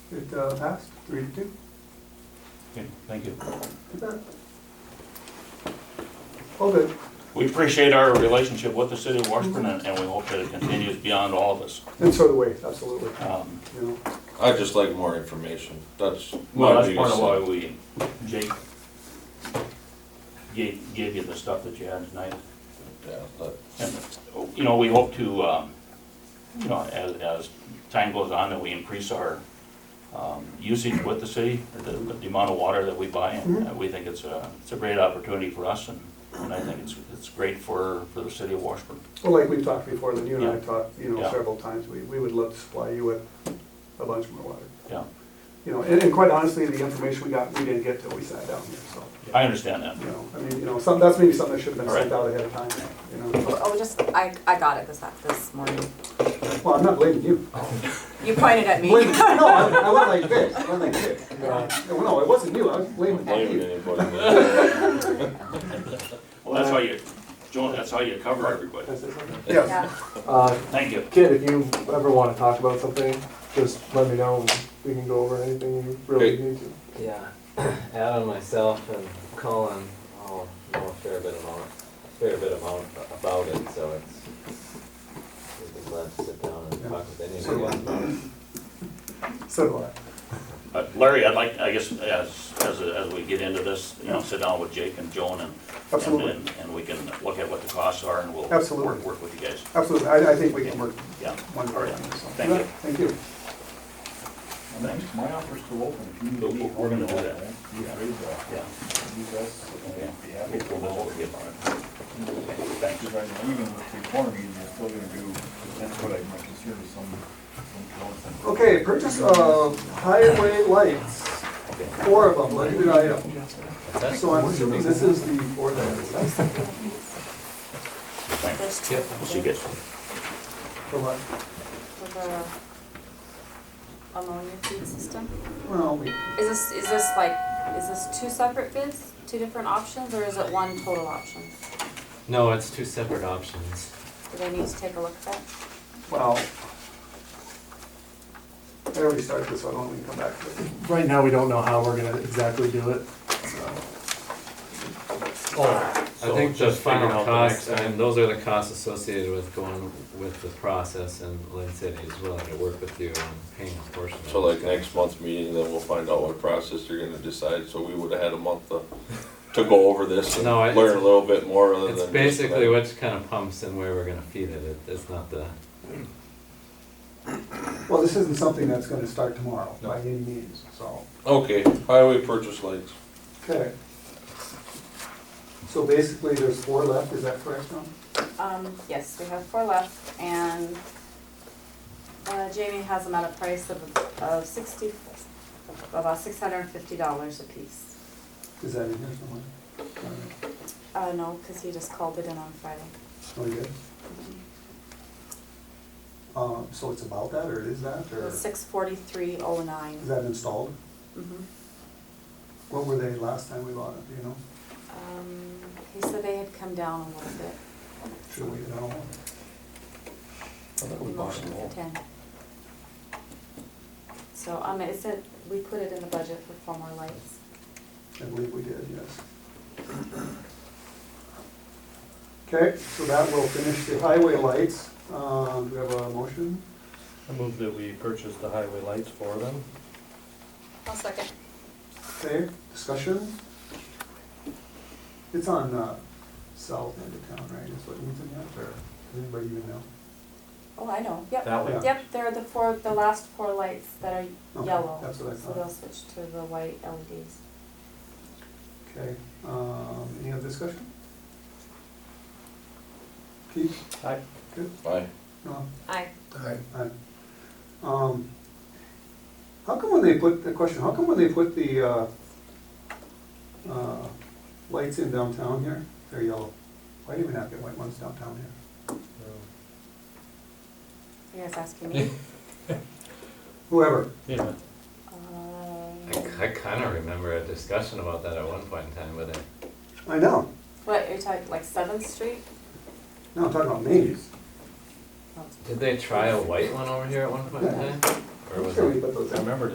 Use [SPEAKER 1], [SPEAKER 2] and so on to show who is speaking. [SPEAKER 1] It uh, passed, three to two.
[SPEAKER 2] Okay, Thank you.
[SPEAKER 1] All good.
[SPEAKER 2] We appreciate our relationship with the city of Washburn and and we hope that it continues beyond all of us.
[SPEAKER 1] And so do we, absolutely.
[SPEAKER 2] Um,
[SPEAKER 1] You know,
[SPEAKER 3] I'd just like more information, that's.
[SPEAKER 2] Well,
[SPEAKER 3] my
[SPEAKER 2] that's part of
[SPEAKER 3] biggest
[SPEAKER 2] why
[SPEAKER 3] thing.
[SPEAKER 2] we, Jake gave, gave you the stuff that you had tonight.
[SPEAKER 3] Yeah, but
[SPEAKER 2] And, you know, we hope to, um, you know, as, as time goes on, that we increase our um, usage with the city, the, the amount of water that we buy. And uh, we think it's a, it's a great opportunity for us and, and I think it's, it's great for, for the city of Washburn.
[SPEAKER 1] Well, like we've talked before, then you and I
[SPEAKER 2] Yeah.
[SPEAKER 1] talked, you know,
[SPEAKER 2] Yeah.
[SPEAKER 1] several times, we, we would love to supply you with a bunch more water.
[SPEAKER 2] Yeah,
[SPEAKER 1] You know, and, and quite honestly, the information we got, we didn't get till we sat down here, so,
[SPEAKER 2] I understand that.
[SPEAKER 1] you know, I mean, you know, some, that's maybe something that should have been sent
[SPEAKER 2] All
[SPEAKER 1] out ahead of time, you know.
[SPEAKER 4] Oh, just, I, I got it this, this morning.
[SPEAKER 1] Well, I'm not blaming you.
[SPEAKER 4] You pointed at me.
[SPEAKER 1] Blaming- No, I, I went like this, I went like this. No, no, it wasn't you, I was blaming
[SPEAKER 3] blaming
[SPEAKER 1] you.
[SPEAKER 3] anybody.
[SPEAKER 2] Well, that's how you, Joan, that's how you cover everybody.
[SPEAKER 1] Yes,
[SPEAKER 4] Yeah,
[SPEAKER 5] Uh,
[SPEAKER 2] Thank you.
[SPEAKER 5] Kid, if you ever want to talk about something, just let me know. and We can go over anything you really
[SPEAKER 3] Okay.
[SPEAKER 5] need to.
[SPEAKER 6] Yeah, Adam, myself, and Colin all know a fair bit amount, fair bit amount about it, so it's, we'd be glad to sit down and talk with anybody about it.
[SPEAKER 1] so do I.
[SPEAKER 2] Uh, Larry, I'd like, I guess, as, as, as we get into this, you know, sit down with Jake and Joan and.
[SPEAKER 1] Absolutely.
[SPEAKER 2] And, and we can look at what the costs are and we'll.
[SPEAKER 1] Absolutely.
[SPEAKER 2] Work, work with you guys.
[SPEAKER 1] Absolutely, I, I think we can work
[SPEAKER 2] Yeah.
[SPEAKER 1] one
[SPEAKER 2] All
[SPEAKER 1] part
[SPEAKER 2] right.
[SPEAKER 1] on this. so.
[SPEAKER 2] Thank you.
[SPEAKER 1] Thank you.
[SPEAKER 2] Thanks.
[SPEAKER 7] My offer's still open, if you need
[SPEAKER 2] But
[SPEAKER 7] me.
[SPEAKER 2] we're gonna do that.
[SPEAKER 7] You raise that,
[SPEAKER 2] Yeah.
[SPEAKER 7] you guys,
[SPEAKER 2] Okay.
[SPEAKER 7] uh, be happy
[SPEAKER 2] We'll,
[SPEAKER 7] to
[SPEAKER 2] we'll
[SPEAKER 7] know.
[SPEAKER 2] work with you on it. Thanks.
[SPEAKER 7] Because I know even with the corner, you're still gonna do, that's what I, my concern is some, some. counts.
[SPEAKER 1] Okay, purchase of highway lights, four of them, listed item. So I'm assuming this is the four that is, that's
[SPEAKER 2] Thanks.
[SPEAKER 4] there's
[SPEAKER 2] We'll see you guys.
[SPEAKER 1] the one.
[SPEAKER 4] With the ammonia feed system.
[SPEAKER 1] Well, we,
[SPEAKER 4] Is this, is this like, is this two separate bids, two different options, or is it one total option?
[SPEAKER 6] No, it's two separate options.
[SPEAKER 4] Do they need to take a look at that?
[SPEAKER 1] well, I already started this, so I don't want to come back to it.
[SPEAKER 5] Right now, we don't know how we're gonna exactly do it.
[SPEAKER 6] I think the final cost, and those are the costs associated with going with the process, and Lynn said he's willing to work with you on paying a portion of it.
[SPEAKER 3] So like next month's meeting, then we'll find out what process they're gonna decide, so we would've had a month to, to go over this and
[SPEAKER 6] No, it's-
[SPEAKER 3] learn a little bit more other than.
[SPEAKER 6] It's
[SPEAKER 3] just
[SPEAKER 6] basically
[SPEAKER 3] that.
[SPEAKER 6] which kind of pumps and where we're gonna feed it, It- it's not the,
[SPEAKER 1] Well, this isn't something that's going to start tomorrow by any means, so,
[SPEAKER 3] Okay, highway purchase lights,
[SPEAKER 1] okay. So basically, there's four left, is that correct, Tom?
[SPEAKER 4] Um, yes, we have four left, and, uh, Jamie has them at a price of, of sixty, about six hundred and fifty dollars apiece.
[SPEAKER 1] Is that in here somewhere? All right.
[SPEAKER 4] Uh, no, because he just called it in on Friday.
[SPEAKER 1] Oh, you good?
[SPEAKER 4] Mm-hmm.
[SPEAKER 1] Um, so it's about that, or it is that, or?
[SPEAKER 4] Six forty-three oh nine.
[SPEAKER 1] Is that installed? What were they last time we bought it, do you know?
[SPEAKER 4] Um, He said they had come down a little bit.
[SPEAKER 1] Should we, I don't know.
[SPEAKER 4] Motion for ten. So, um, it said, we put it in the budget for four more lights.
[SPEAKER 1] I believe we did, yes. Okay, so that will finish the highway lights. Um, do we have a motion?
[SPEAKER 8] I move that we purchase the highway lights for them.
[SPEAKER 4] One second.
[SPEAKER 1] Okay, discussion? It's on, uh, south end of town, right, is what it's in that, or anybody even know?
[SPEAKER 4] Oh, I know, yep.
[SPEAKER 8] That
[SPEAKER 1] Yeah.
[SPEAKER 8] way,
[SPEAKER 4] Yep, they're the four, the last four lights that are
[SPEAKER 1] Okay,
[SPEAKER 4] yellow.
[SPEAKER 1] that's what I
[SPEAKER 4] So
[SPEAKER 1] thought.
[SPEAKER 4] they'll switch to the white E LEDs.
[SPEAKER 1] Okay, um, any other discussion? Keith?
[SPEAKER 8] Aye.
[SPEAKER 1] Good,
[SPEAKER 3] aye,
[SPEAKER 1] Ron?
[SPEAKER 4] Aye.
[SPEAKER 1] Aye. Um, How come when they put, the question, how come when they put the uh, uh, lights in downtown here, they're yellow? Why do we not get white ones downtown here?
[SPEAKER 4] You guys asking me?
[SPEAKER 1] Whoever,
[SPEAKER 2] Yeah.
[SPEAKER 6] I,
[SPEAKER 4] Um,
[SPEAKER 6] ki- I kinda remember a discussion about that at one point in time with it.
[SPEAKER 1] I know,
[SPEAKER 4] What, are you talking like Seventh Street?
[SPEAKER 1] no, I'm talking about Mays.
[SPEAKER 4] Oh,
[SPEAKER 6] Did they try a white one over here at one point in time? Or
[SPEAKER 1] I'm
[SPEAKER 6] was
[SPEAKER 1] sure
[SPEAKER 6] it?
[SPEAKER 1] we put those
[SPEAKER 8] I
[SPEAKER 1] in.
[SPEAKER 8] remember